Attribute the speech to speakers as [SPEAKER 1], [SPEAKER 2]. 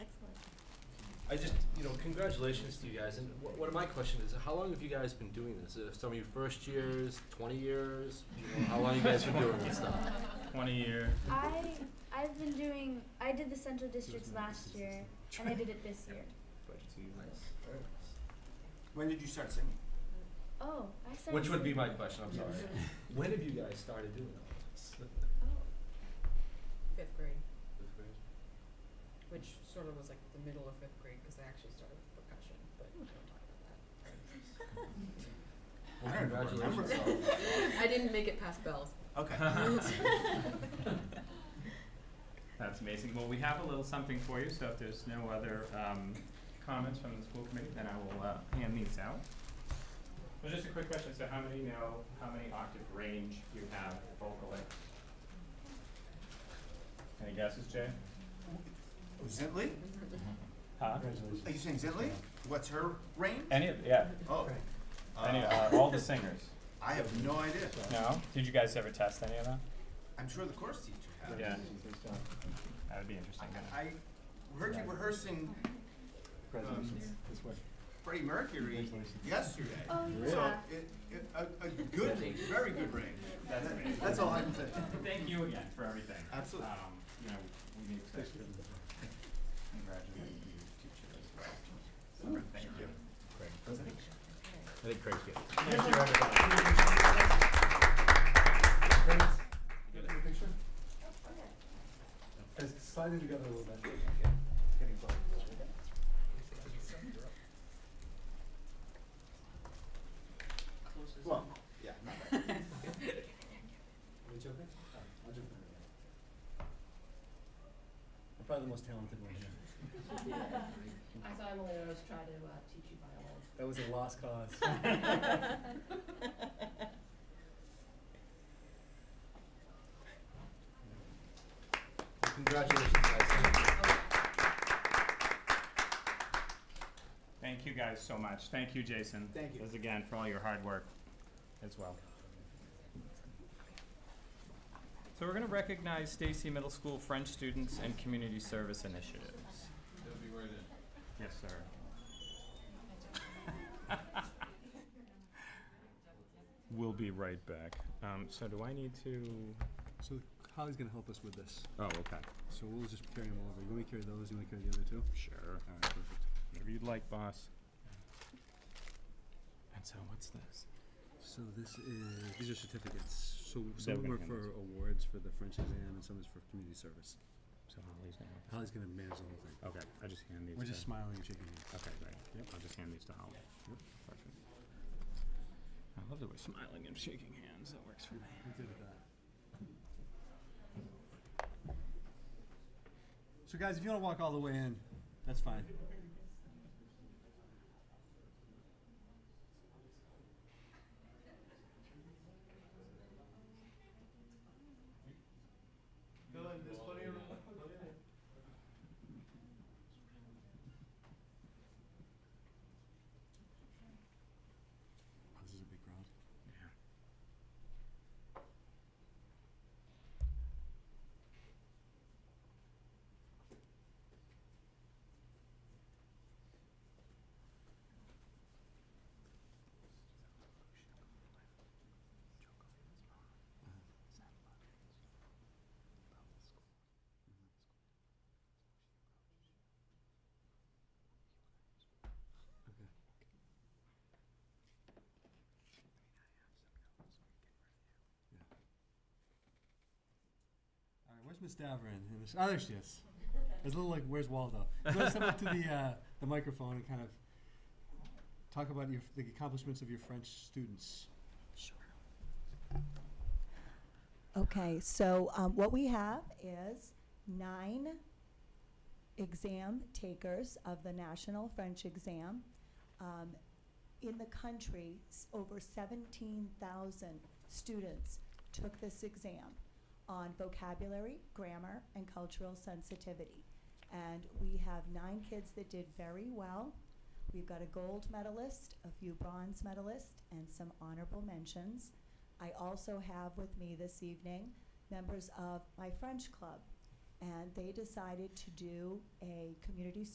[SPEAKER 1] I just, you know, congratulations to you guys, and wh- what my question is, how long have you guys been doing this? Uh, Some of you first years, twenty years, you know, how long you guys been doing this stuff?
[SPEAKER 2] Twenty year.
[SPEAKER 3] I I've been doing I did the central districts last year and I did it this year.
[SPEAKER 4] When did you start singing?
[SPEAKER 3] Oh, I started.
[SPEAKER 1] Which would be my question, I'm sorry. When have you guys started doing all this?
[SPEAKER 3] Oh,
[SPEAKER 5] fifth grade, which sort of was like the middle of fifth grade because I actually started
[SPEAKER 1] Well,
[SPEAKER 5] with percussion, but we don't talk about that.
[SPEAKER 4] I don't remember.
[SPEAKER 1] congratulations.
[SPEAKER 5] I didn't make it past bells.
[SPEAKER 4] Okay.
[SPEAKER 2] That's amazing. Well, we have a little something for you, so if there's no other um, comments from the school committee, then I will uh, hand these out. Well, just a quick question. So, how many know how many octave range you have vocally? Any guesses, Jay?
[SPEAKER 4] Zitli?
[SPEAKER 2] Huh?
[SPEAKER 4] Are you saying Zitli? What's her range?
[SPEAKER 2] Any of yeah?
[SPEAKER 4] Oh. Uh,
[SPEAKER 2] Any uh, all the singers?
[SPEAKER 4] I have no idea.
[SPEAKER 2] No. Did you guys ever test any of that?
[SPEAKER 4] I'm sure the course teacher has.
[SPEAKER 2] Yeah. That would be interesting.
[SPEAKER 4] I, I heard you rehearsing um,
[SPEAKER 6] This way.
[SPEAKER 4] Freddie Mercury yesterday.
[SPEAKER 3] Oh
[SPEAKER 4] So
[SPEAKER 3] yeah.
[SPEAKER 4] it, it, a, a good, very good range.
[SPEAKER 2] That's amazing.
[SPEAKER 4] That's all I can say.
[SPEAKER 2] Thank you again for everything.
[SPEAKER 4] Absolutely.
[SPEAKER 2] Um, you know, we need to congratulate you, teacher, as well. So, Thank you.
[SPEAKER 1] I think Craig's getting it.
[SPEAKER 2] Thank you, everybody.
[SPEAKER 6] Get the picture? Just slide it together a little bit. Getting close.
[SPEAKER 4] Well, yeah, not bad.
[SPEAKER 6] Are you joking? Oh, I'll jump in. I'm probably the most talented one here.
[SPEAKER 7] I saw Emily always try to uh, teach you violin.
[SPEAKER 6] That was a lost cause.
[SPEAKER 1] Congratulations, guys.
[SPEAKER 2] Thank you guys so much. Thank you, Jason.
[SPEAKER 4] Thank you.
[SPEAKER 2] As again, for all your hard work as well. So we're gonna recognize Stacy Middle School French students and community service initiatives. Yes, sir. We'll be right back. Um, so do I need to?
[SPEAKER 6] So Holly's gonna help us with this.
[SPEAKER 2] Oh, okay.
[SPEAKER 6] So we'll just carry them over. You want me to carry those? You want to carry the other two?
[SPEAKER 2] Sure.
[SPEAKER 6] Alright, perfect.
[SPEAKER 2] Whatever you'd like, boss. And so what's this?
[SPEAKER 6] So this is, these are certificates. So some of
[SPEAKER 2] Definitely
[SPEAKER 6] them are
[SPEAKER 2] gonna
[SPEAKER 6] for awards for the French exam and some is for community service.
[SPEAKER 2] So Holly's now.
[SPEAKER 6] Holly's gonna manage the whole thing.
[SPEAKER 2] Okay, I just hand these.
[SPEAKER 6] We're
[SPEAKER 2] to-
[SPEAKER 6] just smiling and shaking hands.
[SPEAKER 2] Okay, great. Yep, I'll just hand these to Holly. Yep. Perfect. I love that we're smiling and shaking hands. That works for me.
[SPEAKER 6] We did that. So guys, if you wanna walk all the way in, that's fine. Oh, this is a big crowd. All right, where's Miss Davern? And this- Oh, there she is. It's a little like, where's Waldo? So let's step up to the, uh, the microphone and kind of talk about your, the accomplishments of your French students.
[SPEAKER 8] Okay, so um, what we have is nine exam takers of the National French Exam. Um, In the country, s- over 17,000 students took this exam on vocabulary, grammar, and cultural sensitivity. And we have nine kids that did very well. We've got a gold medalist, a few bronze medalists, and some honorable mentions. I also have with me this evening members of my French club, and they decided to do a community